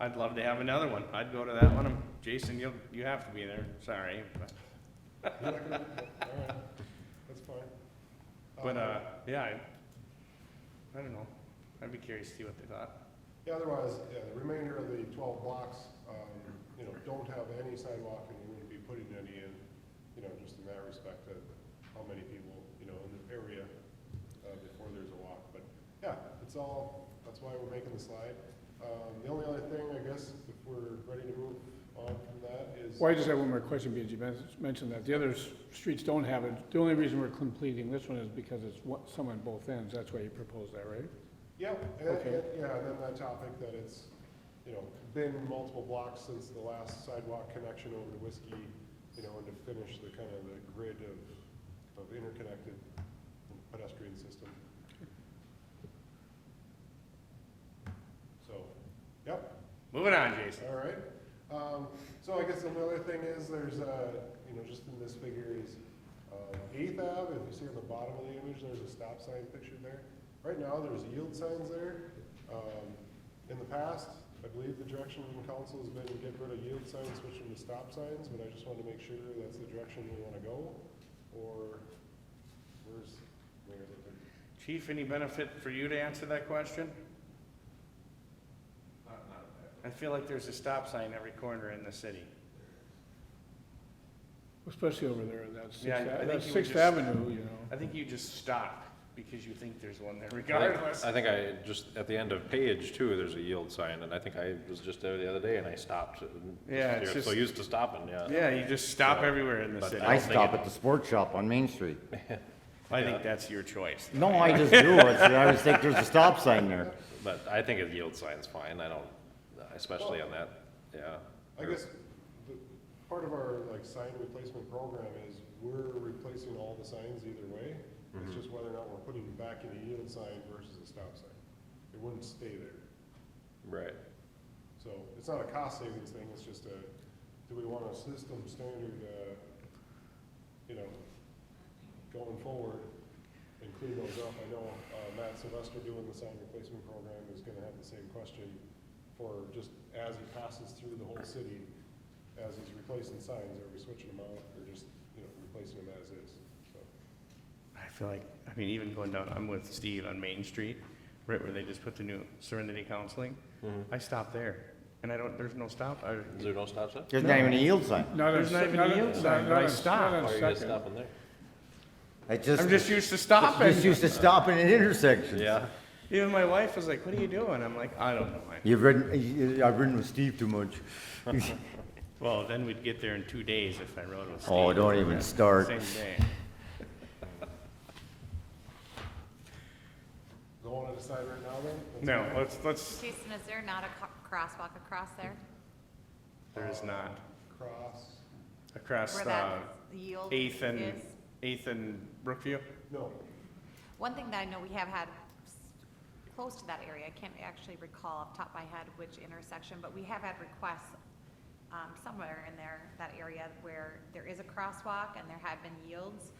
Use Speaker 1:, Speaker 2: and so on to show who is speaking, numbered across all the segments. Speaker 1: I'd love to have another one. I'd go to that one. Um, Jason, you, you have to be there. Sorry. But,
Speaker 2: You're not gonna- all right, That's fine. Um,
Speaker 1: but,
Speaker 2: Oh.
Speaker 1: uh, yeah, I, I don't know. I'd be curious to see what they thought.
Speaker 2: Yeah, otherwise, yeah, the remainder of the twelve blocks, um, you know, don't have any sidewalk and you wouldn't be putting any in, you know, just in that respect of how many people, you know, in the area, uh, before there's a walk, but, yeah, it's all, that's why we're making the slide. Um, the only other thing, I guess, if we're ready to move on from that is.
Speaker 3: Well, I just have one more question, because you men- mentioned that the other s- streets don't have it. The only reason we're completing this one is because it's one- some on both ends, that's why you proposed that, right?
Speaker 2: Yeah, and, that-
Speaker 3: Okay.
Speaker 2: yeah, and then that topic that it's, you know, been multiple blocks since the last sidewalk connection over to Whiskey, you know, and to finish the kind of the grid of, of interconnected pedestrian system. So, yep,
Speaker 1: Moving on, Jason.
Speaker 2: all right. Um, so I guess the other thing is there's, uh, you know, just in this figure is, uh, Eighth Ave, if you see on the bottom of the image, there's a stop sign pictured there. Right now, there's yield signs there. Um, in the past, I believe the direction from council has been to get rid of yield signs, switch them to stop signs, but I just wanted to make sure that's the direction we wanna go. Or, where's, where is it?
Speaker 1: Chief, any benefit for you to answer that question? I feel like there's a stop sign every corner in the city.
Speaker 3: Especially over there, that's
Speaker 1: Yeah, I- I
Speaker 3: Sixth
Speaker 1: think
Speaker 3: Ave-
Speaker 1: you
Speaker 3: that's
Speaker 1: would
Speaker 3: Sixth
Speaker 1: just-
Speaker 3: Avenue, you know.
Speaker 1: I think you just stop because you think there's one there
Speaker 4: I
Speaker 1: regardless.
Speaker 4: think- I think I, just, at the end of page two, there's a yield sign, and I think I was just there the other day and I stopped.
Speaker 1: Yeah, it's
Speaker 4: You're so
Speaker 1: just-
Speaker 4: used to stopping, yeah.
Speaker 1: Yeah, you just stop everywhere in the
Speaker 4: But
Speaker 1: city.
Speaker 4: don't
Speaker 5: I
Speaker 4: think
Speaker 5: stop
Speaker 4: it-
Speaker 5: at the sports shop on Main Street.
Speaker 1: I think that's your choice.
Speaker 5: No, I just do. It's- I always think there's a stop sign there.
Speaker 4: But I think a yield sign's fine, I don't, especially on that, yeah.
Speaker 2: I guess the, part of our like sign replacement program is we're replacing all the signs either way. It's just whether or not we're putting them back in a yield sign versus a stop sign. It wouldn't stay there.
Speaker 4: Right,
Speaker 2: So it's not a cost savings thing, it's just a, do we want a system standard, uh, you know, going forward and clean those up? I know uh, Matt Sylvester doing the sign replacement program is gonna have the same question for just as he passes through the whole city, as he's replacing signs, are we switching them out or just, you know, replacing them as is? So,
Speaker 1: I feel like, I mean, even going down, I'm with Steve on Main Street, right where they just put the new Serenity Counseling.
Speaker 5: Mm-hmm.
Speaker 1: I stop there, and I don't, there's no stop. I,
Speaker 4: is there no stop sign?
Speaker 5: There's not even a yield sign.
Speaker 3: Not on
Speaker 1: There's not
Speaker 3: Se-
Speaker 1: even a
Speaker 3: on-
Speaker 1: yield sign,
Speaker 3: not
Speaker 1: but I
Speaker 3: on- not
Speaker 1: stop.
Speaker 3: on
Speaker 4: Why are you guys
Speaker 3: Second.
Speaker 4: stopping there?
Speaker 5: I just.
Speaker 1: I'm just used to
Speaker 5: just-
Speaker 1: stopping.
Speaker 5: Just used to stopping at intersections.
Speaker 4: Yeah,
Speaker 1: Even my wife was like, "What are you doing?" I'm like, "I don't know." I-
Speaker 5: You've ridden, you- I've ridden with Steve too much.
Speaker 1: Well, then we'd get there in two days if I rode with Steve.
Speaker 5: Oh, don't even start.
Speaker 1: Same day.
Speaker 2: Don't wanna decide right now then? That's
Speaker 1: No,
Speaker 2: fine.
Speaker 1: let's, let's,
Speaker 6: Jason, is there not a co- crosswalk across there?
Speaker 1: there is not.
Speaker 2: Cross,
Speaker 1: Across
Speaker 6: Where
Speaker 1: the
Speaker 6: that yield is?
Speaker 1: uh, Eighth and, Eighth and Brookview?
Speaker 2: no,
Speaker 6: One thing that I know we have had s- close to that area, I can't actually recall off the top of my head which intersection, but we have had requests um, somewhere in there, that area where there is a crosswalk and there have been yields,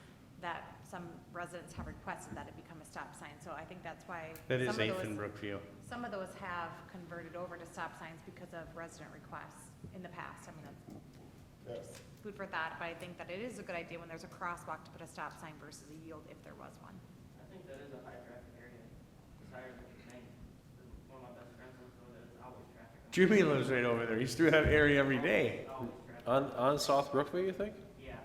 Speaker 6: that some residents have requested that it become a stop sign. So I think that's why.
Speaker 1: That is
Speaker 6: some of
Speaker 1: Eighth and
Speaker 6: those-
Speaker 1: Brookview.
Speaker 6: Some of those have converted over to stop signs because of resident requests in the past. I mean, that's
Speaker 2: yes.
Speaker 6: food for thought, but I think that it is a good idea when there's a crosswalk to put a stop sign versus a yield if there was one.
Speaker 7: I think that is a high traffic area. It's higher than you think. One of my best friends lives over there. It's always traffic.
Speaker 1: Jimmy lives right over there. He's through that area every day.
Speaker 7: Always traffic.
Speaker 4: on, on South Brookview, you think?
Speaker 7: Yeah.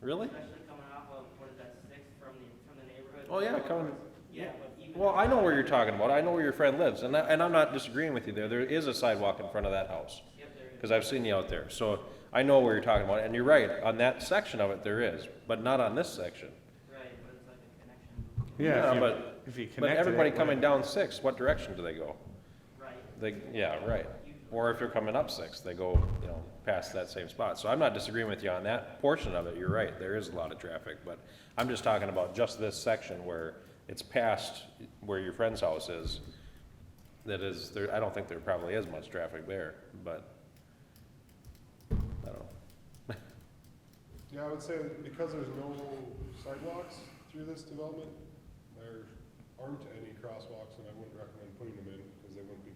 Speaker 4: Really?
Speaker 7: Especially coming off of, what is that, six from the, from the neighborhood?
Speaker 4: Oh, yeah, coming-
Speaker 7: Yeah, but even.
Speaker 4: Well, I know where you're talking about, I know where your friend lives, and I, and I'm not disagreeing with you there, there is a sidewalk in front of that house.
Speaker 7: Yep, there is.
Speaker 4: Because I've seen you out there, so I know what you're talking about, and you're right, on that section of it there is, but not on this section.
Speaker 7: Right, but it's like a connection.
Speaker 1: Yeah,
Speaker 4: Yeah,
Speaker 1: if you-
Speaker 4: but-
Speaker 1: if you connect.
Speaker 4: But
Speaker 1: to
Speaker 4: everybody
Speaker 1: that
Speaker 4: coming
Speaker 1: way.
Speaker 4: down six, what direction do they go?
Speaker 7: Right.
Speaker 4: They, yeah, right, or if they're coming up six, they go, you know, past that same spot, so I'm not disagreeing with you on that portion of it, you're right, there is a lot of traffic, but I'm just talking about just this section where it's past where your friend's house is, that is, there, I don't think there probably is much traffic there, but, I don't know.
Speaker 2: Yeah, I would say that because there's no sidewalks through this development, there aren't any crosswalks, and I wouldn't recommend putting them in, because they wouldn't be